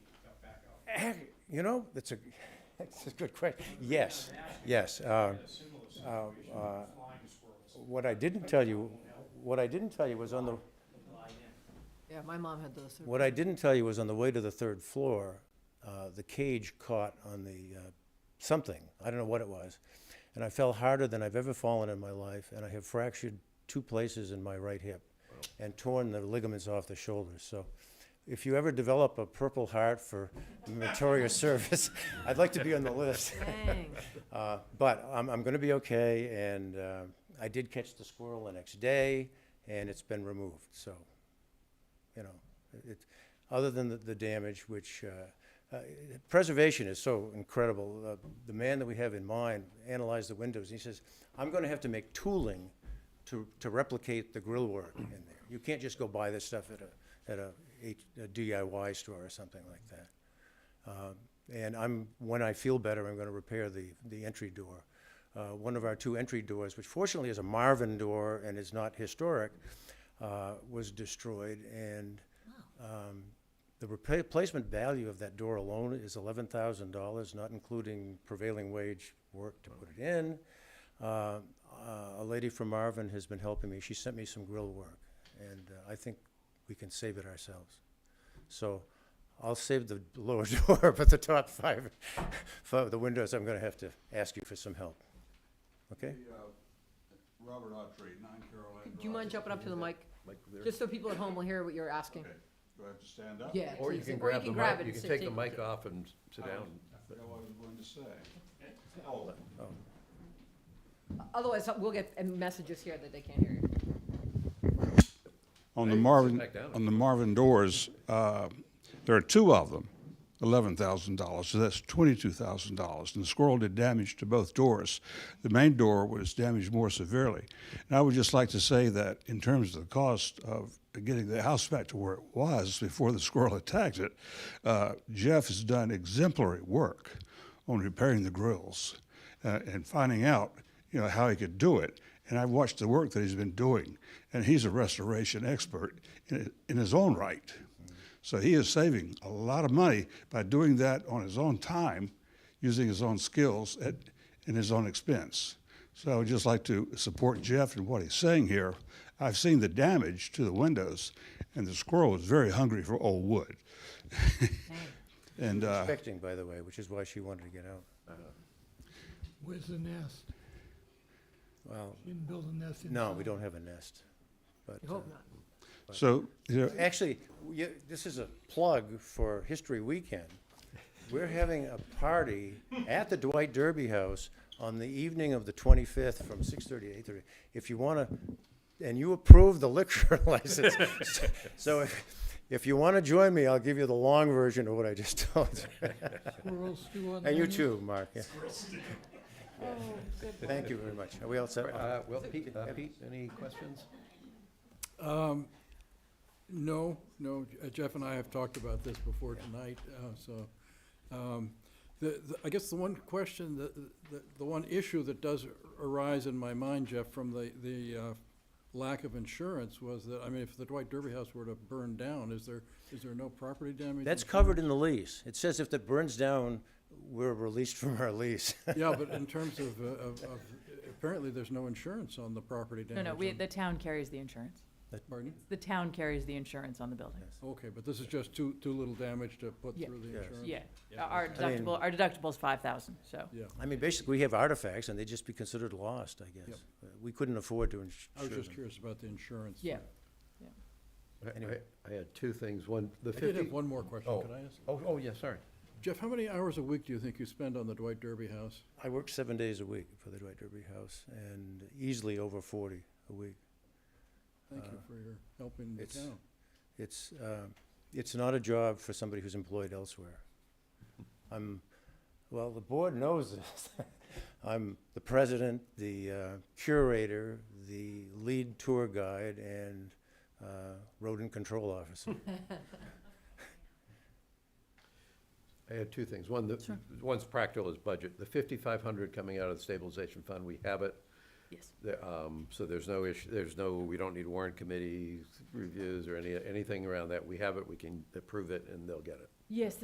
You know, that's a, that's a good question. Yes, yes. uh, uh, uh, What I didn't tell you, what I didn't tell you was on the, Yeah, my mom had those. what I didn't tell you was on the way to the third floor, uh, the cage caught on the, uh, something, I don't know what it was. And I fell harder than I've ever fallen in my life, and I have fractured two places in my right hip and torn the ligaments off the shoulders, so if you ever develop a purple heart for meritorious service, I'd like to be on the list. Dang. Uh, but I'm, I'm going to be okay, and uh, I did catch the squirrel the next day, and it's been removed. So, you know, it, other than the, the damage, which uh, uh, preservation is so incredible. Uh, the man that we have in mind analyzed the windows. And he says, "I'm going to have to make tooling to, to replicate the grill work in there. You can't just go buy this stuff at a at a, H- a DIY store or something like that." Um, And I'm, when I feel better, I'm going to repair the, the entry door. Uh, One of our two entry doors, which fortunately is a Marvin door and is not historic, uh, was destroyed. And um, the repa- replacement value of that door alone is eleven thousand dollars, not including prevailing wage work to put it in. Uh, uh, A lady from Marvin has been helping me. She sent me some grill work, and uh, I think we can save it ourselves. So I'll save the lower door, but the top five, for the windows, I'm gonna have to ask you for some help. Okay? Hey, uh, Robert Autry, nine Carolina Drive. Do you mind jumping up to the mic? Like there? Just so people at home will hear what you're asking. Okay, do I have to stand up? Yeah. Or you please, can grab the it mic, you and can sit- take the mic off and sit I down. forgot what I was going to say. Oh, Otherwise, we'll get uh, messages here that they can't hear you. On the Hey, sit Marvin, back down. on the Marvin doors, uh, there are two of them, eleven thousand dollars, so that's twenty-two thousand dollars. And the squirrel did damage to both doors. The main door was damaged more severely. And I would just like to say that in terms of the cost of getting the house back to where it was before the squirrel attacked it, uh, Jeff has done exemplary work on repairing the grills uh, and finding out, you know, how he could do it. And I've watched the work that he's been doing, and he's a restoration expert in, in his own right. So he is saving a lot of money by doing that on his own time, using his own skills at, and his own expense. So I would just like to support Jeff in what he's saying here. I've seen the damage to the windows, and the squirrel is very hungry for old wood. and uh, Expecting, by the way, which is why she wanted to get out. Where's the nest? Well, You didn't build a nest in. no, we don't have a nest, but. You uh, hope not. so, you know, Actually, we- this is a plug for History Weekend. We're having a party at the Dwight Derby House on the evening of the 25th from 6:30 to 8:30. If you want to, and you approve the liquor license. So- So if- if you want to join me, I'll give you the long version of what I just told you. Squirrels stew on the And you menu? too, Mark. yeah. Thank you very much. Are we all set? Uh, well, Pete, uh, Pete, any questions? No, no, uh, Jeff and I have talked about this before tonight, uh, so. um, The, the- I guess the one question, that- the, the one issue that does arise in my mind, Jeff, from the, the uh, lack of insurance was that, I mean, if the Dwight Derby House were to burn down, is there, is there no property damage? That's insurance? covered in the lease. It says if it burns down, we're released from our lease. Yeah, but in terms of, uh, of, of, apparently there's no insurance on the property No, damage. no, we, on- the town carries the insurance. Pardon? The town carries the insurance on the building. Okay, but this is just too, too little damage to put Yeah. through the Yes. insurance? Yeah, our I mean- deductible, our deductible's five thousand, so. Yeah, I mean, basically, we have artifacts, and they'd just be considered lost, I guess. Yep. Uh, We couldn't afford to ins- I was insure just them. curious about the insurance. Yeah. I- I, Anyway. I had two things, one, the I fifty. did have one more question, Oh. could I ask? Oh, oh, yeah, sorry. Jeff, how many hours a week do you think you spend on the Dwight Derby House? I work seven days a week for the Dwight Derby House, and easily over forty a week. Thank Uh, you for your help in the it's- town. It's, uh, it's not a job for somebody who's employed elsewhere. I'm, well, the board knows this. I'm the president, the uh, curator, the lead tour guide, and uh, rodent control officer. I had two things. One, the, one's practical is budget. The fifty-five hundred coming out of the stabilization fund, we have it. Yes. The, um, so there's no issue, there's no, we don't need warrant committee reviews or any, anything around that. We have it, we can approve it, and they'll get it. Yes,